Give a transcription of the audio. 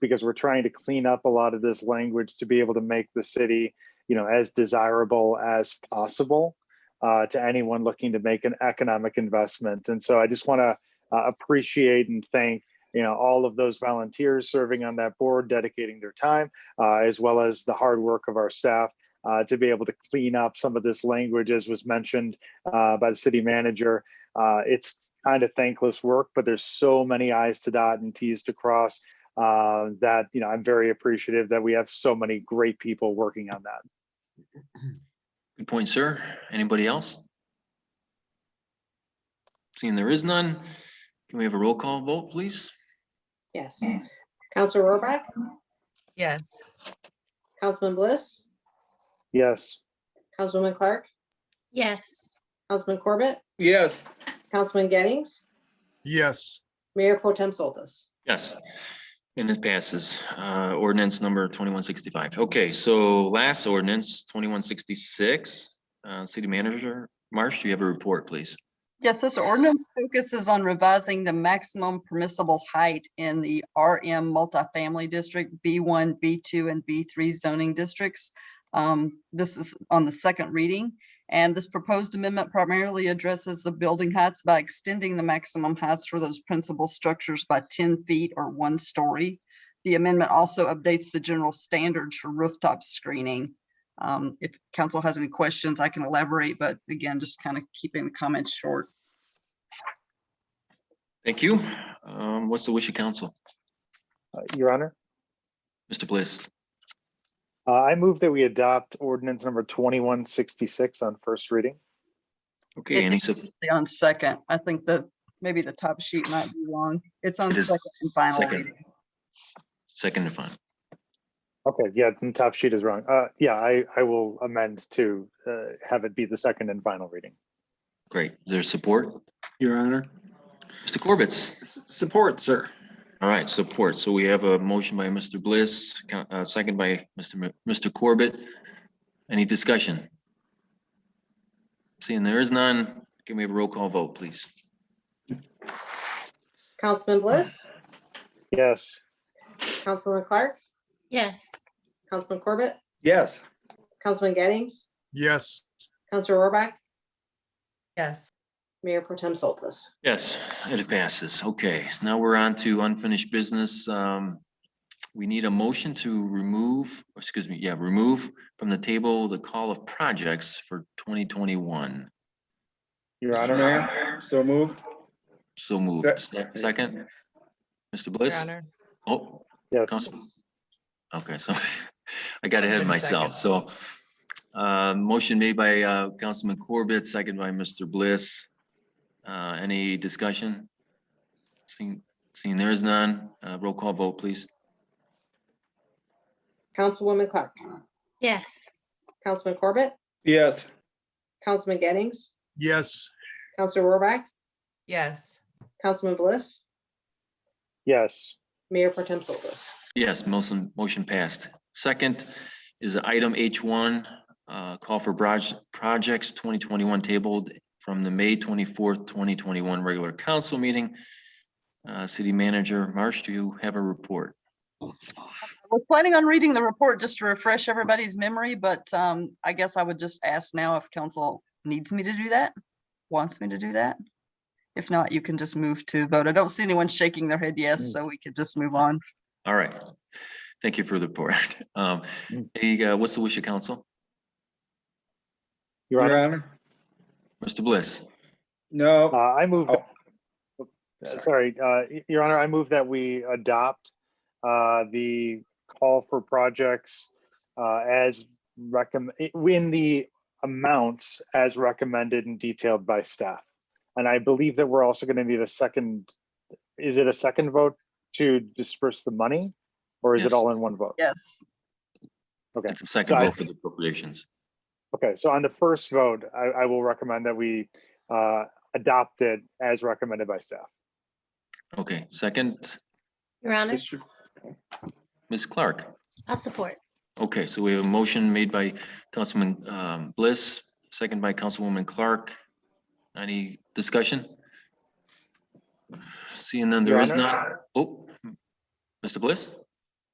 because we're trying to clean up a lot of this language to be able to make the city, you know, as desirable as possible uh, to anyone looking to make an economic investment. And so I just want to uh, appreciate and thank, you know, all of those volunteers serving on that board, dedicating their time, uh, as well as the hard work of our staff uh, to be able to clean up some of this language, as was mentioned uh, by the city manager. Uh, it's kind of thankless work, but there's so many I's to dot and T's to cross uh, that, you know, I'm very appreciative that we have so many great people working on that. Good point, sir. Anybody else? Seeing there is none, can we have a roll call vote, please? Yes. Counselor Rohrbach, Yes. Councilman Bliss, Yes. Councilwoman Clark, Yes. Councilman Corbett, Yes. Councilman Gettings, yes, Mayor Pro Tem Soltis. Yes. And this passes, uh, ordinance number twenty-one sixty-five. Okay, so last ordinance, twenty-one sixty-six. Uh, city manager, Marsh, do you have a report, please? Yes, this ordinance focuses on revising the maximum permissible height in the RM multifamily district, B1, B2, and B3 zoning districts. Um, This is on the second reading, and this proposed amendment primarily addresses the building heights by extending the maximum heights for those principal structures by 10 feet or one story. The amendment also updates the general standards for rooftop screening. Um, If council has any questions, I can elaborate, but again, just kind of keeping the comments short. Thank you. Um, what's the wish of council? Uh, Your Honor? Mr. Bliss, Uh, I move that we adopt ordinance number twenty-one sixty-six on first reading. okay, It- any, it's sub- usually On second, I think the, maybe the top sheet might be wrong. It's on It is second and final second. reading. second and final. Okay, yeah, the top sheet is wrong. Uh, yeah, I, I will amend to, uh, have it be the second and final reading. Great, is there support? Your Honor. Mr. Corbett's? S- Support, sir. All right, support. So we have a motion by Mr. Bliss, co- uh, second by Mr. Mi- Mr. Corbett. Any discussion? Seeing there is none, can we have a roll call vote, please? Councilman Bliss, Yes, Councilwoman Clark, Yes. Councilman Corbett, Yes. Councilman Gettings, yes, Counselor Rohrbach, Yes. Mayor Pro Tem Soltis. Yes, it passes. Okay, so now we're on to unfinished business. Um, We need a motion to remove, excuse me, yeah, remove from the table the call of projects for 2021. Your Mr. Honor. Mayor, So moved. So moved. Se- Second? Mr. Your Bliss? Honor. Oh, Yes, Council. Okay, so I got ahead of Second. myself. So uh, motion made by uh, Councilman Corbett, second by Mr. Bliss. Uh, Any discussion? Seeing, seeing there is none, uh, roll call vote, please. Councilwoman Clark, Yes. Councilman Corbett, Yes. Councilman Gettings, yes, Counselor Rohrbach, Yes. Councilman Bliss, yes, Mayor Pro Tem Soltis. Yes, motion, motion passed. Second is item H1, uh, call for proj- projects 2021 tabled from the May 24th, 2021 regular council meeting. Uh, City Manager Marsh, do you have a report? I was planning on reading the report just to refresh everybody's memory, but um, I guess I would just ask now if council needs me to do that, wants me to do that. If not, you can just move to vote. I don't see anyone shaking their head yes, so we could just move on. All right. Thank you for the report. Um, Mm. hey, uh, what's the wish of council? Your Your Honor. Honor. Mr. Bliss, Uh, No. I move, Oh, Uh, Sorry, uh, y- Your Honor, I move that we adopt uh, the call for projects uh, as recommend, in the amounts as recommended and detailed by staff. And I believe that we're also going to need a second, is it a second vote to disperse the money? Or is Yes. it all in one vote? Yes. Okay. that's the second Sorry. vote for the appropriations. Okay, so on the first vote, I, I will recommend that we uh, adopt it as recommended by staff. Okay, second, Your Honor, Mr. Ms. Clark. I'll support. Okay, so we have a motion made by Councilman um, Bliss, second by Councilwoman Clark. Any discussion? Seeing none, there Your is Honor. none. Oh, Mr. Bliss?